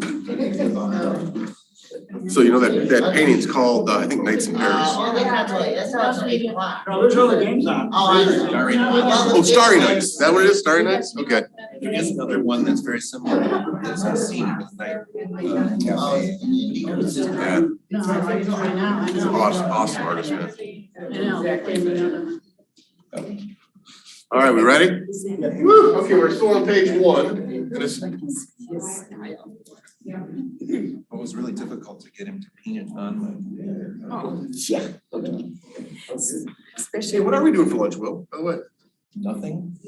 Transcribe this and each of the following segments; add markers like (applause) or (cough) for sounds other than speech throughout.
painting on it. So you know that, that painting's called, uh, I think Nights in Paris. Oh, that's not really, that's not really a lot. No, there's other games on. Oh, I see. Starry Nights. Oh, Starry Nights, is that what it is, Starry Nights? Okay. There is another one that's very similar, that's a scene with night. uh, cafe. It's just Yeah, No, I think right now, I he's an know. awesome, awesome artist, man. I know, they're cleaning it up. All right, we ready? Okay, we're still on page one, and it's, It was really difficult to get him to paint it on my. Yeah. hey, Especially what are we doing for lunch, Will, by the way? Nothing?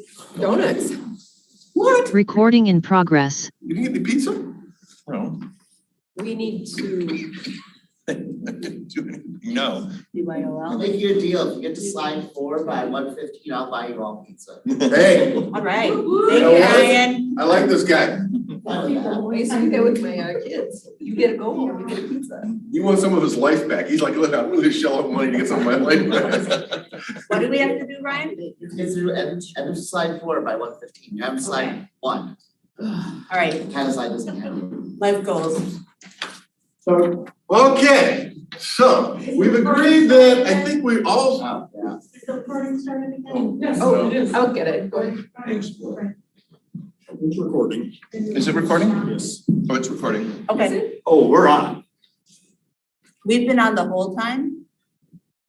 donuts. What? Recording in progress. You can get me pizza? No. (laughs) We need to. I didn't do anything. No. You might I'll allow. make you a deal, if you get to slide four by one fifteen, I'll buy you all pizza. Hey, All right. You Thank know you, what? Ryan. I like this guy. I used to do that with my uh, kids. You get a go home, you get a pizza. He wants some of his life back. He's like, look, I'm really shell out money to get some of my life back. What do we have to do, Ryan? Kids are at, at slide four by one fifteen, you haven't slide one, All right, kind of slide doesn't happen. life goals. Okay, so we've agreed that, I think we all. Oh, yeah. Oh, I'll get it. Go ahead. It's recording. Is it recording? Yes. Oh, it's recording. Okay, Oh, we're on. we've been on the whole time?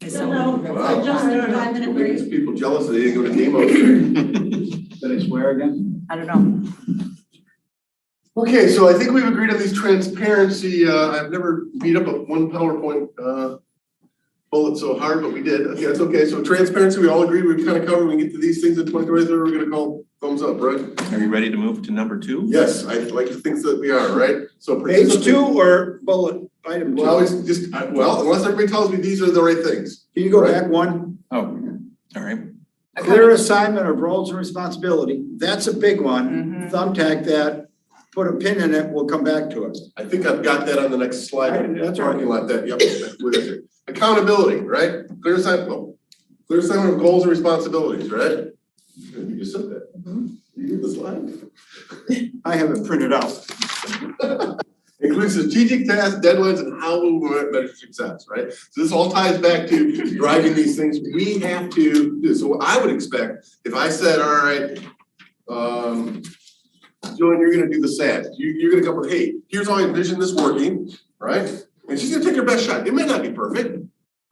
Wow. Just a five minute Making break? these people jealous that they didn't go to Nemo. Did I swear again? I don't know. Okay, so I think we've agreed on these transparency, uh, I've never beat up a one PowerPoint, uh, bullet so hard, but we did. Okay, That's okay. So transparency, we all agree, we've kind of covered, we can get to these things in twenty twenty-three, we're gonna call thumbs up, right? Are you ready to move to number two? Yes, I like to think that we are, right? So. Page two or bullet item two? Well, it's just, I- well, unless everybody tells me these are the right things. Can you go back one? Oh, all right. Clear assignment of roles and responsibility. That's a big one. Mm-hmm. Mhm. Thumbtack that, put a pin in it, we'll come back to it. I think I've got that on the next slide. That's all right. Parking lot that, yep, where is it? Accountability, right? Clear assignment, well, clear assignment of goals and responsibilities, right? You just said that. You get the slide. Mm-hmm. I have it printed out. (laughs) Includes strategic tasks, deadlines, and how we will measure success, right? So (laughs) this all ties back to driving these things. We have to do, so what I would expect, if I said, all right, um, Joan, you're gonna do the SAT, you, you're gonna come with, hey, here's how I envision this working, right? And she's gonna take her best shot. It may not be perfect,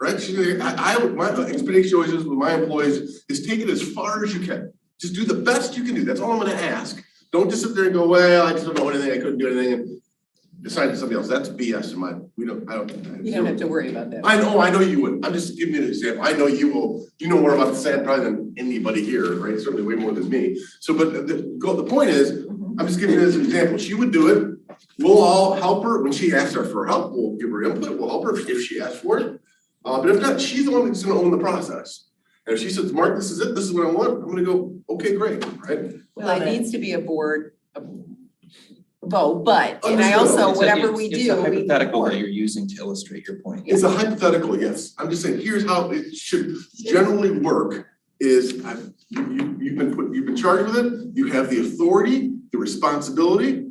right? She's gonna, I, I, would- my expectation always is with my employees is take it as far as you can. Just do the best you can do. That's all I'm gonna ask. Don't just sit there and go, well, I just don't know anything, I couldn't do anything, and assign it to somebody else. That's BS in my, we don't, I don't. You don't have to worry about that. I know, I know you would. I'm just giving you an example. I know you will, you know more about the sand probably than anybody here, right? Certainly way more than me. So, but the- the, go, the point is, I'm just giving you this example. She would do it. We'll all help her when she asks her for help. We'll give her input. We'll help her if she asks for it. Uh, but if not, she's the one that's gonna own the process. And if she says, Mark, this is it, this is what I want, I'm gonna go, okay, great, right? Well, it needs to be a board vote, but, and I Understood. also, It's a- whatever we it's- do, It's a we need a hypothetical board. that you're using to illustrate your point. It's a hypothetical, yes. I'm just saying, here's how it should generally work is I've, you, you- you've been put, you've been charged with it. You have the authority, the responsibility.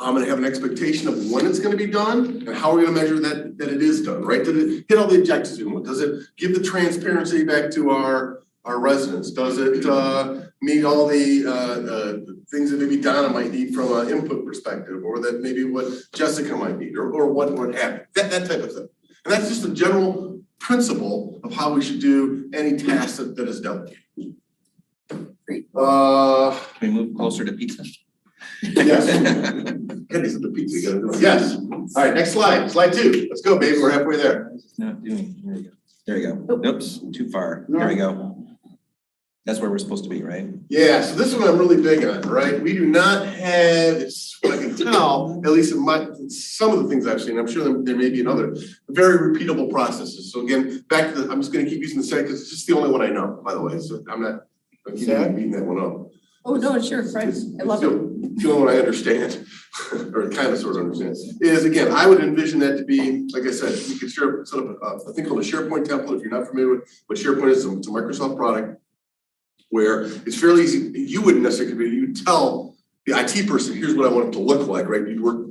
I'm gonna have an expectation of when it's gonna be done and how we're gonna measure that, that it is done, right? Did it hit all the objectives we want? Does it give the transparency back to our, our residents? Does it, uh, meet all the, uh, uh, things that maybe Donna might need from an input perspective? Or that maybe what Jessica might need or, or what would happen? That, that type of thing. And that's just a general principle of how we should do any task that that is delegated. Uh, Can we move closer to pizza? Yes. Kenny's at the pizza, you gotta do it. yes. All right, next slide, slide two. Let's go, baby, we're halfway there. (laughs) It's Not doing, there you go. There you Oh. go. Oops, too far. There we go. That's where we're supposed to be, right? Yeah, so this one I'm really big on, right? We do not have, it's what I can tell, at least in my, in some of the things I've seen, I'm sure there- there may be another, very repeatable processes. So again, back to the, I'm just gonna keep using the same, because it's just the only one I know, by the way, so I'm not, I'm keeping beating that one up. Oh, no, sure, Fred, It's- I love it's it. the- The only one I understand, (laughs) or kind of sort of understand, is again, I would envision that to be, like I said, you could share, set up a, a thing called a SharePoint template, if you're not familiar with what SharePoint is, it's a Microsoft product. Where it's fairly easy, you wouldn't necessarily, you tell the IT person, here's what I want it to look like, right? You'd work